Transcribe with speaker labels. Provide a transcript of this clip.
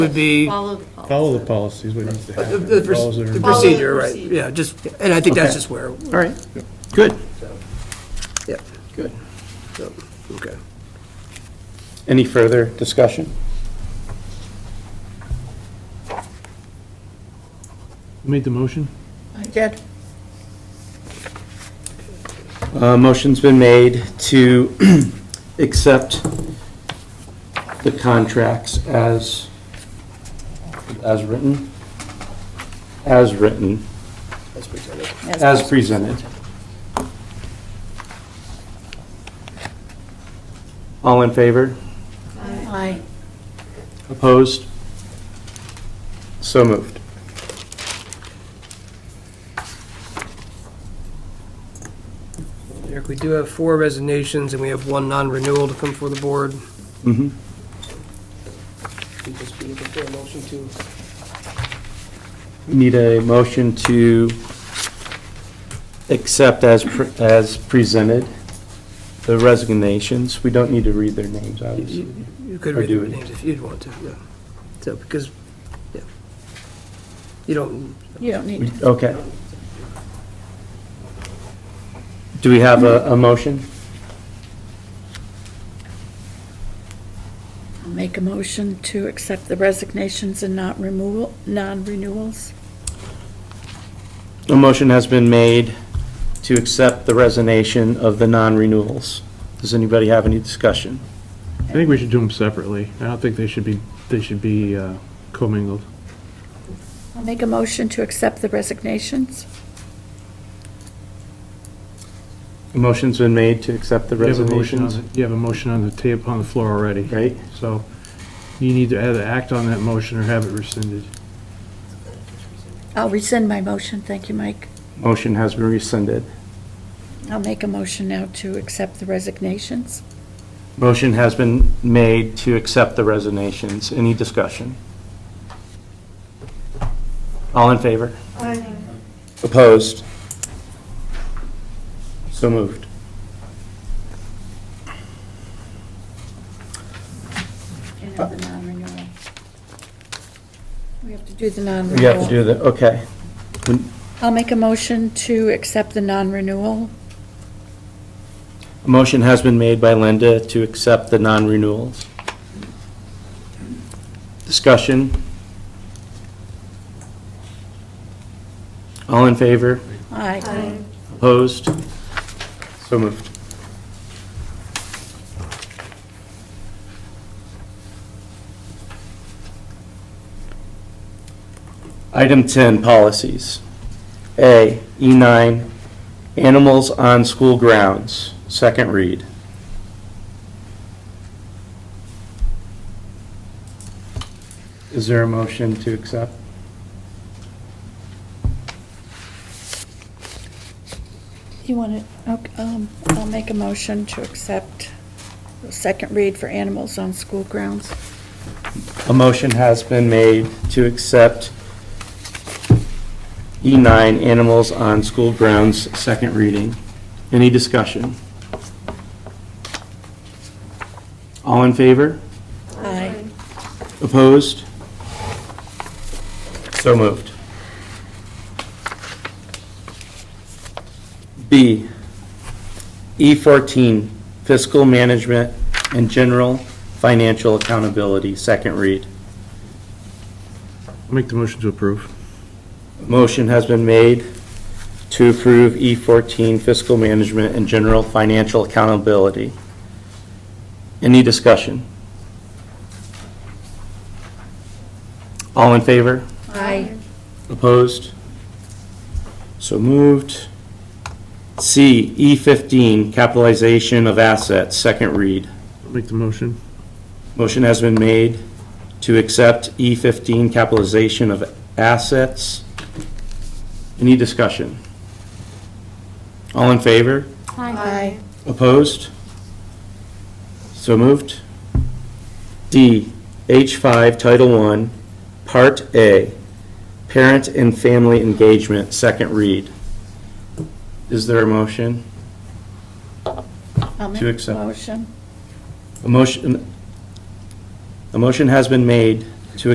Speaker 1: would be
Speaker 2: Follow the policy.
Speaker 3: Follow the policies, we don't have to
Speaker 1: the-
Speaker 3: have.
Speaker 1: Uh, the
Speaker 3: it. Follows their-
Speaker 1: the
Speaker 2: Follow the
Speaker 1: procedure, right?
Speaker 2: procedure.
Speaker 1: Yeah, just, and I think that's
Speaker 4: Okay.
Speaker 1: just where,
Speaker 4: All right, good,
Speaker 1: yeah,
Speaker 4: good.
Speaker 1: so, okay.
Speaker 4: Any further discussion?
Speaker 3: Made the motion?
Speaker 5: I did.
Speaker 4: Uh, Motion's been made to accept the contracts as, as written, as written, as presented. All in favor?
Speaker 5: Aye.
Speaker 4: Opposed? So moved.
Speaker 1: Eric, we do have four resignations, and we have one non-renewal to come for the board.
Speaker 4: Mm-hmm.
Speaker 1: We'd just be looking for a motion to
Speaker 4: Need a motion to accept as, pre- as presented the resignations. We don't need to read their names, obviously.
Speaker 1: You you could
Speaker 4: Or
Speaker 1: read
Speaker 4: do
Speaker 1: the
Speaker 4: it.
Speaker 1: names if you'd want to, yeah. So, because, yeah. You don't,
Speaker 5: You don't need
Speaker 4: We-
Speaker 5: to.
Speaker 4: Okay. Do we have a, a motion?
Speaker 5: I'll Make a motion to accept the resignations and not removal, non-renewals.
Speaker 4: A motion has been made to accept the resignation of the non-renewals. Does anybody have any discussion?
Speaker 3: I think we should do them separately. I don't think they should be, they should be uh, commingled.
Speaker 5: I'll make a motion to accept the resignations.
Speaker 4: A motion's been made to accept the
Speaker 3: You have a motion on
Speaker 4: resignations,
Speaker 3: the- You have a motion on the tape, on the floor already.
Speaker 4: right?
Speaker 3: So you need to either act on that motion or have it rescinded.
Speaker 5: I'll rescind my motion, thank you, Mike.
Speaker 4: Motion has been rescinded.
Speaker 5: I'll make a motion now to accept the resignations.
Speaker 4: Motion has been made to accept the resignations. Any discussion? All in favor? Opposed? So moved.
Speaker 5: And the non-renewal. We have to do the non-renewal.
Speaker 4: We have to do the, okay.
Speaker 5: I'll make a motion to accept the non-renewal.
Speaker 4: A Motion has been made by Linda to accept the non-renewals. Discussion? All in favor?
Speaker 5: Aye.
Speaker 4: Opposed? So moved. Item 10, policies. A, E9, animals on school grounds, second read. Is there a motion to accept?
Speaker 5: You want to, um, I'll make a motion to accept the second read for animals on school grounds.
Speaker 4: A motion has been made to accept E9, Animals on School Grounds, second reading. Any discussion? All in favor?
Speaker 5: Aye.
Speaker 4: Opposed? So moved. B, E14, Fiscal Management and General Financial Accountability, second read.
Speaker 3: Make the motion to approve.
Speaker 4: Motion has been made to approve E14 fiscal management and general financial accountability. Any discussion? All in favor?
Speaker 5: Aye.
Speaker 4: Opposed? So moved. C, E15 capitalization of assets, second read.
Speaker 3: Make the motion.
Speaker 4: Motion has been made to accept E15 capitalization of assets. Any discussion? All in favor?
Speaker 5: Aye.
Speaker 4: Opposed? So moved. D, H5 Title I, Part A, Parent and Family Engagement, second read. Is there a motion?
Speaker 5: I'll make
Speaker 4: To
Speaker 5: a
Speaker 4: accept.
Speaker 5: motion.
Speaker 4: A motion, a motion has been made